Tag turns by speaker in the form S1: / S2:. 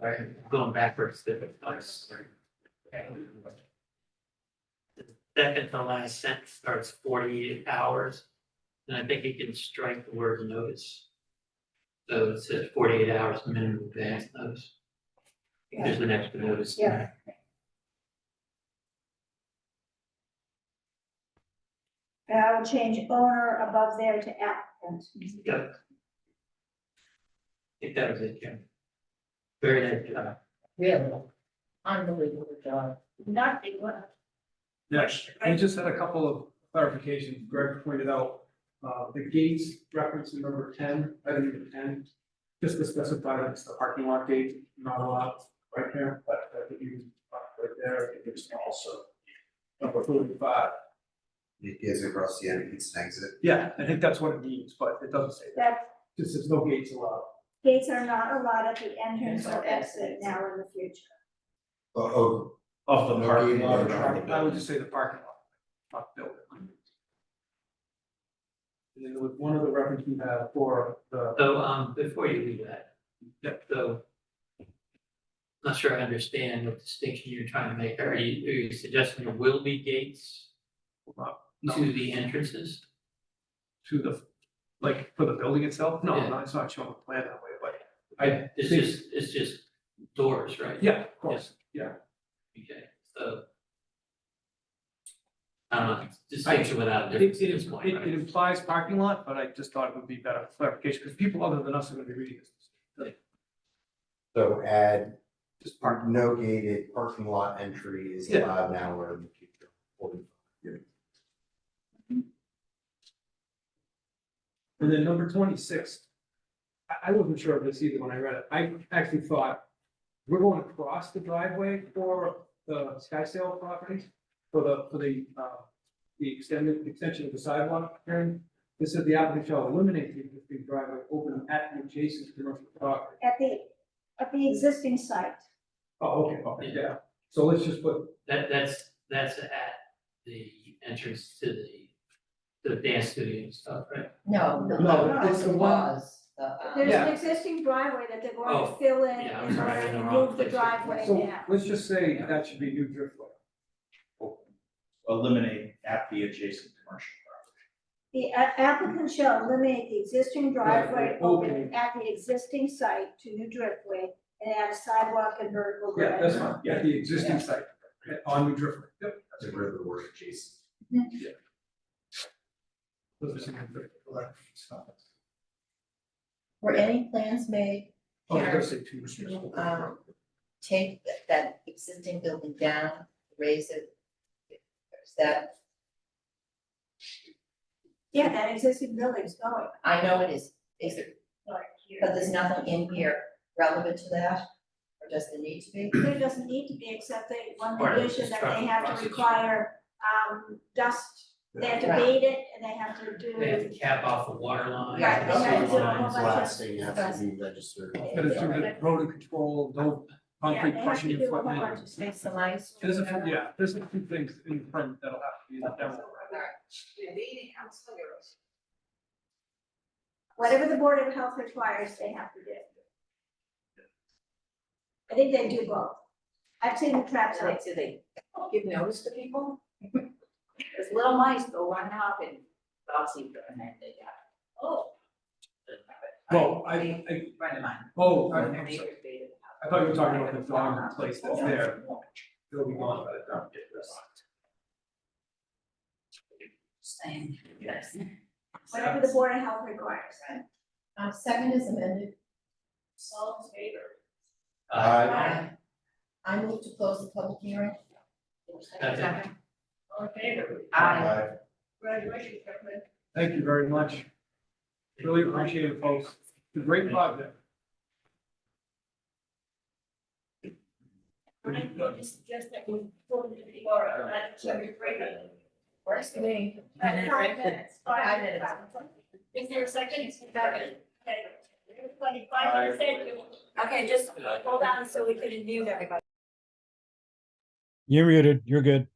S1: Right, going backwards, different place. Second to last sentence starts forty-eight hours, and I think you can strike the word notice. So it says forty-eight hours minimum advance notice. There's an extra notice.
S2: Yeah.
S3: And I will change owner above there to applicant.
S1: Yep. I think that was it, Jim. Very nice job.
S2: Really, unbelievable job.
S3: Nothing, well,
S4: Yes, I just had a couple of clarifications. Greg pointed out, uh, the gates reference in number ten, item number ten. Just to specify that it's the parking lot gate, not a lot right there, but I think you, uh, right there, I think it's also. Number forty-five,
S5: It is across the end, it's an exit.
S4: yeah, I think that's what it means, but it doesn't say that.
S3: that
S4: Just says no gates allowed.
S3: gates are not allowed at the entrance
S2: Entrance
S3: or
S2: or
S3: exit
S2: exit.
S3: now or in the future.
S5: Oh, oh,
S4: Of
S5: the parking lot or not the
S4: I would just say the parking lot, not building. And then there was one other reference you had for the,
S1: So, um, before you leave that.
S4: Yep.
S1: So. Not sure I understand what distinction you're trying to make. Are you, are you suggesting there will be gates
S4: no.
S1: to the entrances?
S4: to the, like, for the building itself? No,
S1: Yeah.
S4: no, it's not showing the plan that way, but I,
S1: It's
S4: think-
S1: just, it's just doors, right?
S4: yeah, of course, yeah.
S1: Okay, so. I don't know, distinction without a
S4: It,
S1: difference
S4: it,
S1: at this point,
S4: it it
S1: right?
S4: implies parking lot, but I just thought it would be better clarification, because people other than us are gonna be reading this.
S5: so add
S4: Just park,
S5: park, no gated parking lot entry is
S4: Yeah.
S5: allowed now or in the future.
S4: and then number twenty-six. I, I wasn't sure of this either when I read it, I actually thought, we're going across the driveway for the sky sale property, for the, for the, uh, the extended, extension of the sidewalk, Karen. This said the applicant shall eliminate the existing driveway open at and adjacent commercial property.
S3: At the, at the existing site,
S4: Oh, okay, okay, yeah, so let's just put,
S1: That, that's, that's at the entrance to the, to the dance studio and stuff, right?
S2: No, no,
S4: No, it's the
S2: it
S4: one-
S2: was the, um,
S3: there's
S4: Yeah.
S3: an existing driveway that they're going
S1: Oh,
S3: to fill in
S1: yeah, I'm
S3: in
S1: sorry, I'm
S3: order
S1: in
S3: to
S1: the wrong
S3: move the
S1: place.
S3: driveway
S4: so
S3: now.
S4: let's just say that should be new driftway.
S6: eliminate at the adjacent commercial property.
S3: The a- applicant shall eliminate the existing driveway
S4: Driveway
S3: open
S4: opening.
S3: at the existing site to new driftway and add a sidewalk and vertical grade.
S4: Yeah, that's fine, yeah, the existing site, yeah, on new driftway, yep.
S5: That's where the word adjacent.
S4: Those are some of the-
S2: were any plans made
S4: Oh, I gotta
S2: Karen,
S4: say two restrictions.
S2: to, um, take that- that existing building down, raise it? Is that,
S3: Yeah, that existing building's going.
S2: I know it is, is it, but there's nothing in here relevant to that? Or does there need to be?
S3: There doesn't need to be, except they, one
S1: Part of the
S3: condition that they
S1: construction
S3: have
S1: process.
S3: to require, um, dust, they have to
S2: Right.
S3: bait it, and they have to
S1: They have
S3: do.
S1: to cap off the water line.
S3: Right,
S1: the
S3: they have to do a whole
S1: lines.
S3: bunch of-
S5: Last thing has to be registered.
S4: Gotta do the road and control, no concrete
S3: Yeah, they have to
S4: crushing
S3: do a whole bunch
S4: equipment.
S3: of things.
S2: some ice.
S4: There's a, few- yeah, there's a few things in the permit that'll have to be let down.
S3: Whatever the Board of Health requires, they have to do. I think they do both. I've seen the trap
S7: Right,
S3: sites,
S7: so they give notice to people. There's little mice go running up and bouncing and then they got, oh.
S4: Well, I, I,
S7: Friend of mine.
S4: oh, I,
S7: their
S4: I'm
S7: neighbor
S4: sorry,
S7: invaded the house.
S4: I thought you were talking about the farm place that's there, it'll be gone by the time we get this.
S7: Saying, yes.
S3: whatever the Board of Health requires.
S2: Um, second is amended.
S7: All in favor?
S1: Uh,
S2: I I move to close the public hearing.
S1: Second.
S7: All in favor?
S2: Aye.
S5: Aye.
S7: Congratulations, Kevin.
S4: Thank you very much. Really appreciate it, folks. It's a great project.
S7: Would you just suggest that we pull it to the order, and let Terry bring it?
S2: Works for me.
S3: Five minutes.
S2: Five minutes.
S7: Is there a second? Second. Everybody, five minutes, thank you. Okay, just hold on so we can mute everybody.
S8: You're muted. You're good.